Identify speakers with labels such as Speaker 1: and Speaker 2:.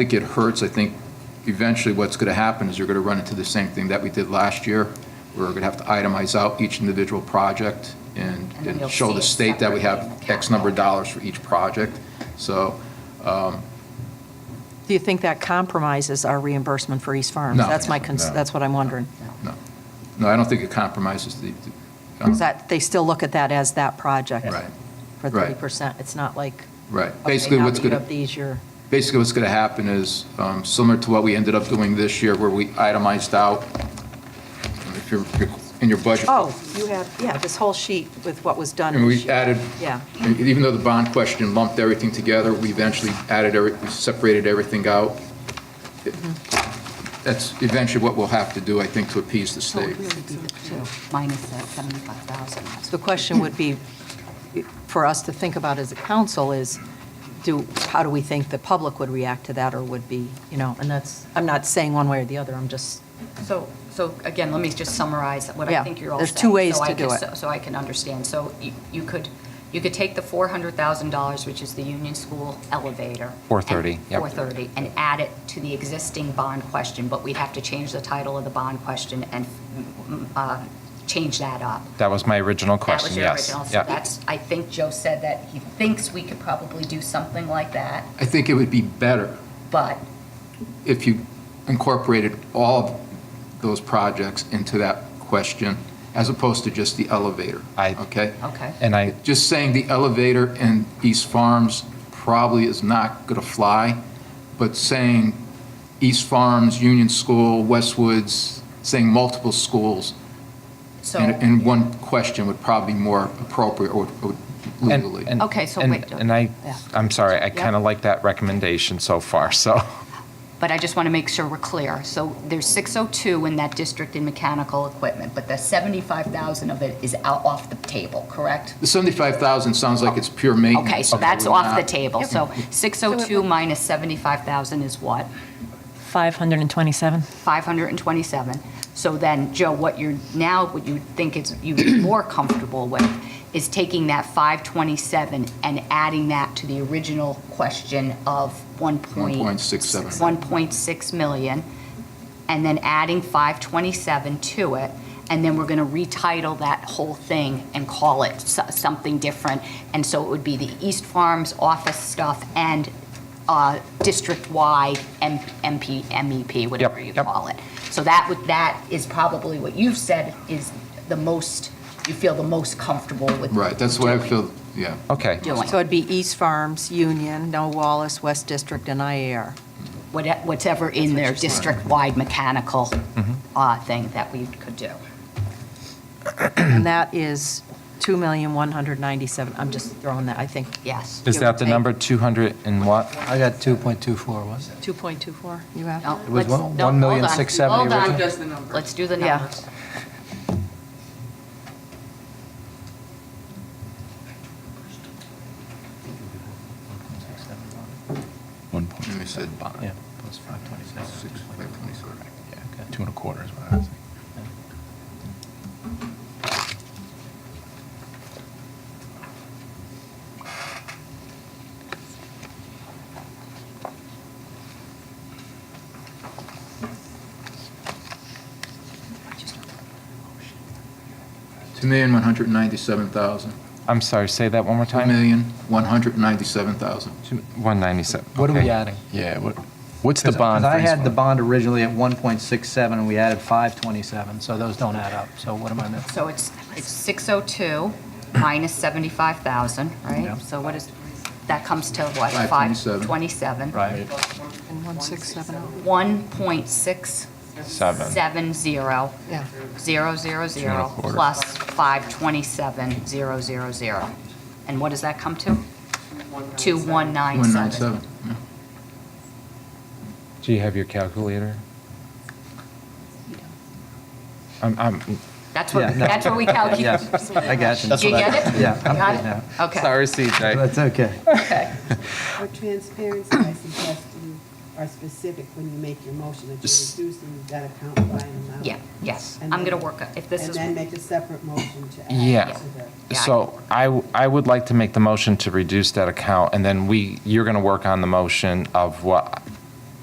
Speaker 1: think it hurts. I think eventually what's going to happen is you're going to run into the same thing that we did last year. We're going to have to itemize out each individual project and,
Speaker 2: And
Speaker 1: and
Speaker 2: you'll
Speaker 1: show
Speaker 2: see
Speaker 1: the
Speaker 2: it
Speaker 1: state that we
Speaker 2: separately in
Speaker 1: have
Speaker 2: the
Speaker 1: X number of
Speaker 2: capital.
Speaker 1: dollars for each project. So,
Speaker 2: Do you think that compromises our reimbursement for East Farms?
Speaker 1: No.
Speaker 2: That's my, cons-
Speaker 3: No.
Speaker 2: that's what I'm wondering.
Speaker 1: no, no, I don't think it compromises the, the-
Speaker 2: Is that, they still look at that as that project?
Speaker 1: Right.
Speaker 2: For
Speaker 1: Right.
Speaker 2: 30%? It's not like,
Speaker 1: right.
Speaker 2: okay,
Speaker 1: Basically,
Speaker 2: now
Speaker 1: what's
Speaker 2: that you
Speaker 1: going to.
Speaker 2: have these, you're,
Speaker 1: basically what's going to happen is, um, similar to what we ended up doing this year, where we itemized out, if you're in your budget.
Speaker 2: oh, you have, yeah, this whole sheet with what was done.
Speaker 1: And
Speaker 2: this
Speaker 1: we
Speaker 2: year.
Speaker 1: added,
Speaker 2: Yeah.
Speaker 1: even though the bond question lumped everything together, we eventually added, every- we separated everything out. It- That's eventually what we'll have to do, I think, to appease the
Speaker 4: So it
Speaker 1: state.
Speaker 4: would really be the two, minus that 75,000.
Speaker 2: So the question would be, for us to think about as a council is, do, how do we think the public would react to that or would be, you know, and that's, I'm not saying one way or the other, I'm just,
Speaker 4: So, so again, let me just summarize what
Speaker 2: Yeah,
Speaker 4: I think you're all saying.
Speaker 2: there's two ways
Speaker 4: so I
Speaker 2: to do
Speaker 4: could-
Speaker 2: it.
Speaker 4: So I can understand. So you- you could, you could take the $400,000, which is the Union School elevator.
Speaker 5: 430,
Speaker 4: and-
Speaker 5: yep.
Speaker 4: 430, and add it to the existing bond question, but we'd have to change the title of the bond question and mm, uh, change that up.
Speaker 5: That was my original
Speaker 4: That
Speaker 5: question,
Speaker 4: was your
Speaker 5: yes.
Speaker 4: original. So
Speaker 5: Yeah.
Speaker 4: that's, I think Joe said that he thinks we could probably do something like that,
Speaker 1: I think it would be better
Speaker 4: but
Speaker 1: if you incorporated all of those projects into that question, as opposed to just the elevator.
Speaker 5: I-
Speaker 1: Okay?
Speaker 4: Okay.
Speaker 5: And I,
Speaker 1: Just saying the elevator in East Farms probably is not going to fly, but saying East Farms, Union School, Westwoods, saying multiple schools
Speaker 4: so.
Speaker 1: in, in one question would probably be more appropriate or or legally.
Speaker 5: and, and.
Speaker 4: Okay, so
Speaker 5: and-
Speaker 4: wait,
Speaker 5: And I,
Speaker 4: yeah.
Speaker 5: I'm sorry, I
Speaker 4: Yep.
Speaker 5: kind of like that recommendation so far, so.
Speaker 4: but I just want to make sure we're clear. So there's 602 in that district in mechanical equipment, but the 75,000 of it is out off the table, correct?
Speaker 1: The 75,000 sounds like it's pure maintenance.
Speaker 4: Mm-hmm. Okay, so
Speaker 1: I
Speaker 4: that's
Speaker 1: would
Speaker 4: off the
Speaker 1: not-
Speaker 4: table. So 602 minus 75,000 is what?
Speaker 6: 527.
Speaker 4: 527. So then, Joe, what you're now, what you think is you're more comfortable with is taking that 527 and adding that to the original question of
Speaker 1: 1.67.
Speaker 4: 1.6 million, and then adding 527 to it, and then we're going to retitle that whole thing and call it so- something different. And so it would be the East Farms office stuff and uh, district-wide M- MP, MEP, whatever you
Speaker 5: yep.
Speaker 4: call it. So that would, that is probably what you've said is the most, you feel the most comfortable with.
Speaker 1: Right, that's what I feel, yeah.
Speaker 5: Okay,
Speaker 4: Doing,
Speaker 2: so it'd be East Farms, Union, No Wallace, West District, and IAR.
Speaker 4: Whate- whatever in their district-wide mechanical
Speaker 5: Mm-hmm.
Speaker 4: uh, thing that we could do.
Speaker 2: And that is 2,197, I'm just throwing that, I think,
Speaker 4: Yes.
Speaker 5: is that the number 200 and what?
Speaker 7: I got 2.24, was it?
Speaker 2: 2.24 you have?
Speaker 4: No,
Speaker 7: was
Speaker 4: let's-
Speaker 7: one-
Speaker 4: no,
Speaker 7: one
Speaker 4: hold
Speaker 7: million
Speaker 4: on.
Speaker 7: six seventy
Speaker 4: Hold on.
Speaker 7: originally.
Speaker 8: Does the number.
Speaker 4: Let's do the
Speaker 2: Yeah.
Speaker 4: numbers.
Speaker 9: One
Speaker 1: And we
Speaker 9: point,
Speaker 1: said bond.
Speaker 9: yeah, plus five twenty-seven.
Speaker 1: Six, five, twenty-seven.
Speaker 9: Yeah, two and a quarter is what I was thinking.
Speaker 1: $2,197,000.
Speaker 5: I'm sorry, say that one more time?
Speaker 1: 2,197,000.
Speaker 5: 197.
Speaker 7: What are we
Speaker 5: okay.
Speaker 7: adding?
Speaker 9: Yeah, what, what's the
Speaker 7: 'Cause-
Speaker 9: bond?
Speaker 7: 'cause I
Speaker 9: for East
Speaker 7: had the
Speaker 9: Farm?
Speaker 7: bond originally at 1.67, and we added 527, so those don't add up. So what am I missing?
Speaker 4: So it's, it's 602 minus 75,000,
Speaker 7: Yeah.
Speaker 4: right? So what is, that comes to what?
Speaker 1: 527.
Speaker 4: 527.
Speaker 7: Right.
Speaker 2: And 1670.
Speaker 4: 1.670.
Speaker 2: Yeah.
Speaker 4: Zero, zero, zero,
Speaker 9: quarter.
Speaker 4: plus 527, zero, zero, zero. And what does that come to? 2197.
Speaker 1: 197, yeah.
Speaker 5: Do you have your calculator? I'm, I'm,
Speaker 4: That's what,
Speaker 7: Yeah, no.
Speaker 4: that's what we calculate.
Speaker 7: Yes, I got you.
Speaker 4: Do you get it?
Speaker 7: Yeah, I'm
Speaker 4: Got
Speaker 7: good now.
Speaker 4: Okay.
Speaker 5: sorry, CJ.
Speaker 7: That's okay.
Speaker 4: Okay.
Speaker 8: For transparency, I suggest you are specific when you make your motion, that
Speaker 5: Just-
Speaker 8: you're reducing that account by an amount.
Speaker 4: Yeah, yes.
Speaker 8: And
Speaker 4: I'm
Speaker 8: then-
Speaker 4: going to work, on- if this is.
Speaker 8: And then make a separate motion to add.
Speaker 5: Yeah.
Speaker 8: to the-
Speaker 4: Yeah.
Speaker 5: So I, w- I would like to make the motion to reduce that account, and then we, you're going to work on the motion of what